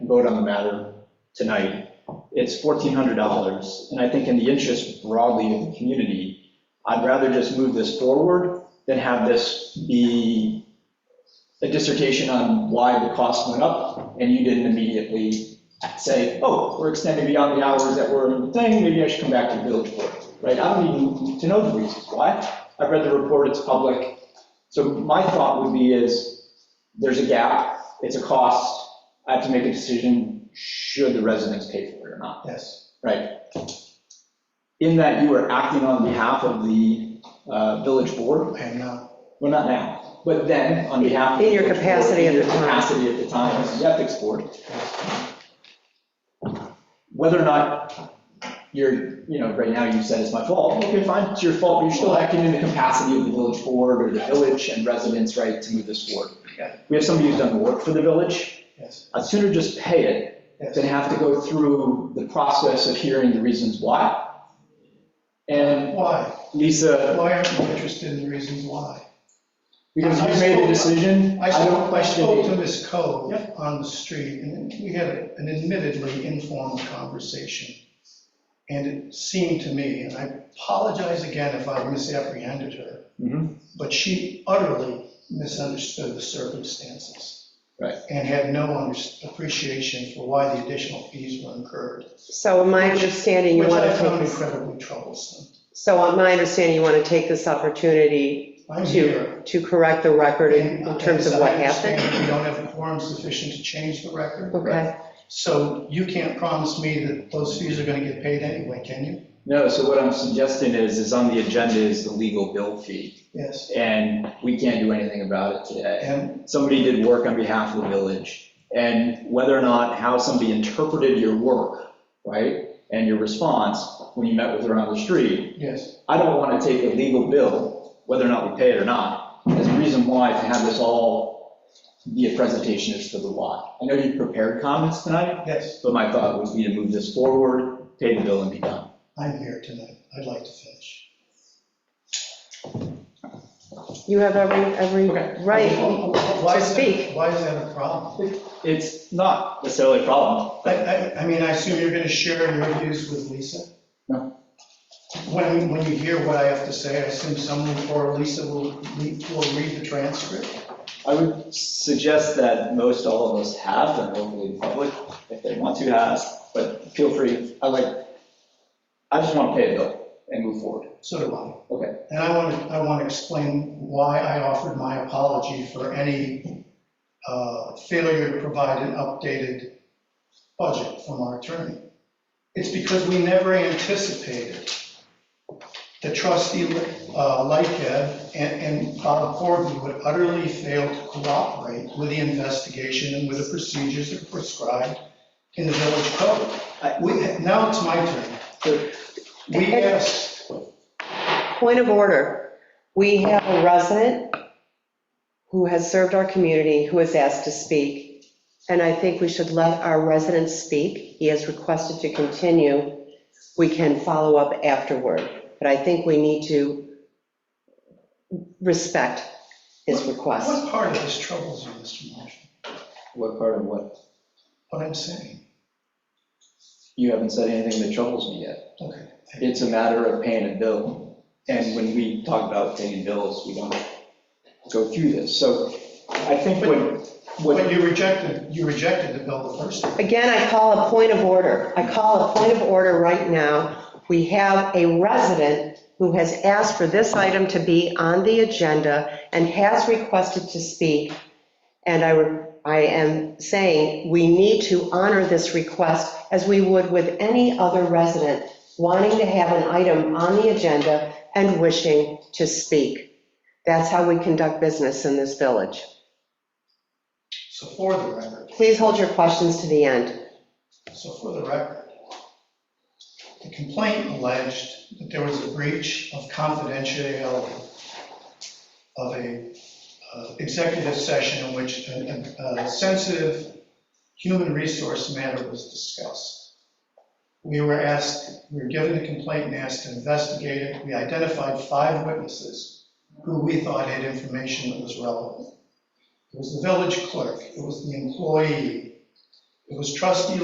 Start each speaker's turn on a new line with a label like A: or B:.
A: vote on the matter tonight. It's $1,400, and I think in the interest broadly of the community, I'd rather just move this forward than have this be a dissertation on why the cost went up, and you didn't immediately say, oh, we're extending beyond the hours that were in the thing, maybe I should come back to the village board, right? I don't even to know the reasons why. I've read the report, it's public. So my thought would be is, there's a gap, it's a cost, I have to make a decision, should the residents pay for it or not,
B: Yes.
A: right? In that you are acting on behalf of the uh, village board,
B: I am not.
A: well, not now, but then on behalf of. the
C: In your
A: village board,
C: capacity at
A: in your
C: the time.
A: Capacity at the time, as the ethics board. Whether or not you're, you know, right now you said it's my fault, okay, fine, it's your fault, but you're still acting in the capacity of the village board or the village and residents' right to move this forward.
B: Yeah.
A: We have somebody who's done work for the village,
B: Yes.
A: I'd sooner just pay it
B: Yes.
A: then have to go through the process of hearing the reasons why. And
B: Why?
A: Lisa,
B: Why aren't you interested in the reasons why?
A: because you made the decision, I
B: I
A: don't
B: spoke, I
A: question
B: spoke to
A: it.
B: Ms. Cove
A: Yep.
B: on the street, and we had an admittedly informal conversation. And it seemed to me, and I apologize again if I misapprehended her,
A: Mhm.
B: but she utterly misunderstood the circumstances.
A: Right.
B: And had no under- appreciation for why the additional fees were incurred,
C: So in my understanding, you
B: which
C: want
B: I
C: to take
B: found
C: this,
B: incredibly troublesome.
C: so on my understanding, you want to take this opportunity
B: I'm here.
C: to, to correct the record in in
B: And
C: terms of
B: as I
C: what
B: understand
C: happened?
B: it, We don't have a quorum sufficient to change the record.
C: Okay,
B: So you can't promise me that those fees are gonna get paid anyway, can you?
A: No, so what I'm suggesting is, is on the agenda is the legal bill fee,
B: Yes.
A: and we can't do anything about it today.
B: And,
A: Somebody did work on behalf of the village, and whether or not how somebody interpreted your work, right? And your response when you met with her on the street,
B: yes,
A: I don't want to take a legal bill, whether or not we pay it or not, as a reason why to have this all be a presentation as to the why. I know you prepared comments tonight,
B: yes,
A: but my thought would be to move this forward, pay the bill and be done.
B: I'm here tonight. I'd like to finish.
C: you have every,
A: Okay.
C: every right.
B: Why is that-
C: speak.
B: Why is that a problem?
A: It's not necessarily a problem.
B: I, I, I mean, I assume you're gonna share your views with Lisa?
A: No.
B: When, when you hear what I have to say, I assume someone or Lisa will, read- will read the transcript?
A: I would suggest that most all of us have, and hopefully the public, if they want to has, but feel free. I like, I just want to pay a bill and move forward.
B: So do I.
A: Okay.
B: And I want to, I want to explain why I offered my apology for any uh, failure to provide an updated budget from our attorney. It's because we never anticipated that trustee uh, Lightgeb and and Bob Corby would utterly fail to cooperate with the investigation and with the procedures that are prescribed in the village code. I- we- Now it's my turn. We asked
C: Point of order, we have a resident who has served our community, who has asked to speak. And I think we should let our resident speak. He has requested to continue. We can follow up afterward, but I think we need to respect his request.
B: What part of this troubles you, Mr. Marshall?
A: What part of what?
B: What I'm saying?
A: You haven't said anything that troubles me yet.
B: Okay. thank you.
A: It's a matter of paying a bill. And when we talk about paying bills, we don't go through this. So I think what,
B: But
A: what,
B: you rejected, you rejected the bill the first time.
C: Again, I call a point of order. I call a point of order right now. We have a resident who has asked for this item to be on the agenda and has requested to speak. And I, I am saying, we need to honor this request as we would with any other resident wanting to have an item on the agenda and wishing to speak. That's how we conduct business in this village.
B: So for the record,
C: Please hold your questions to the end.
B: so for the record, the complaint alleged that there was a breach of confidentiality of a uh, executive session in which a- a a sensitive human resource matter was discussed. We were asked, we were given the complaint and asked to investigate it. We identified five witnesses who we thought had information that was relevant. It was the village clerk, it was the employee, It was trustee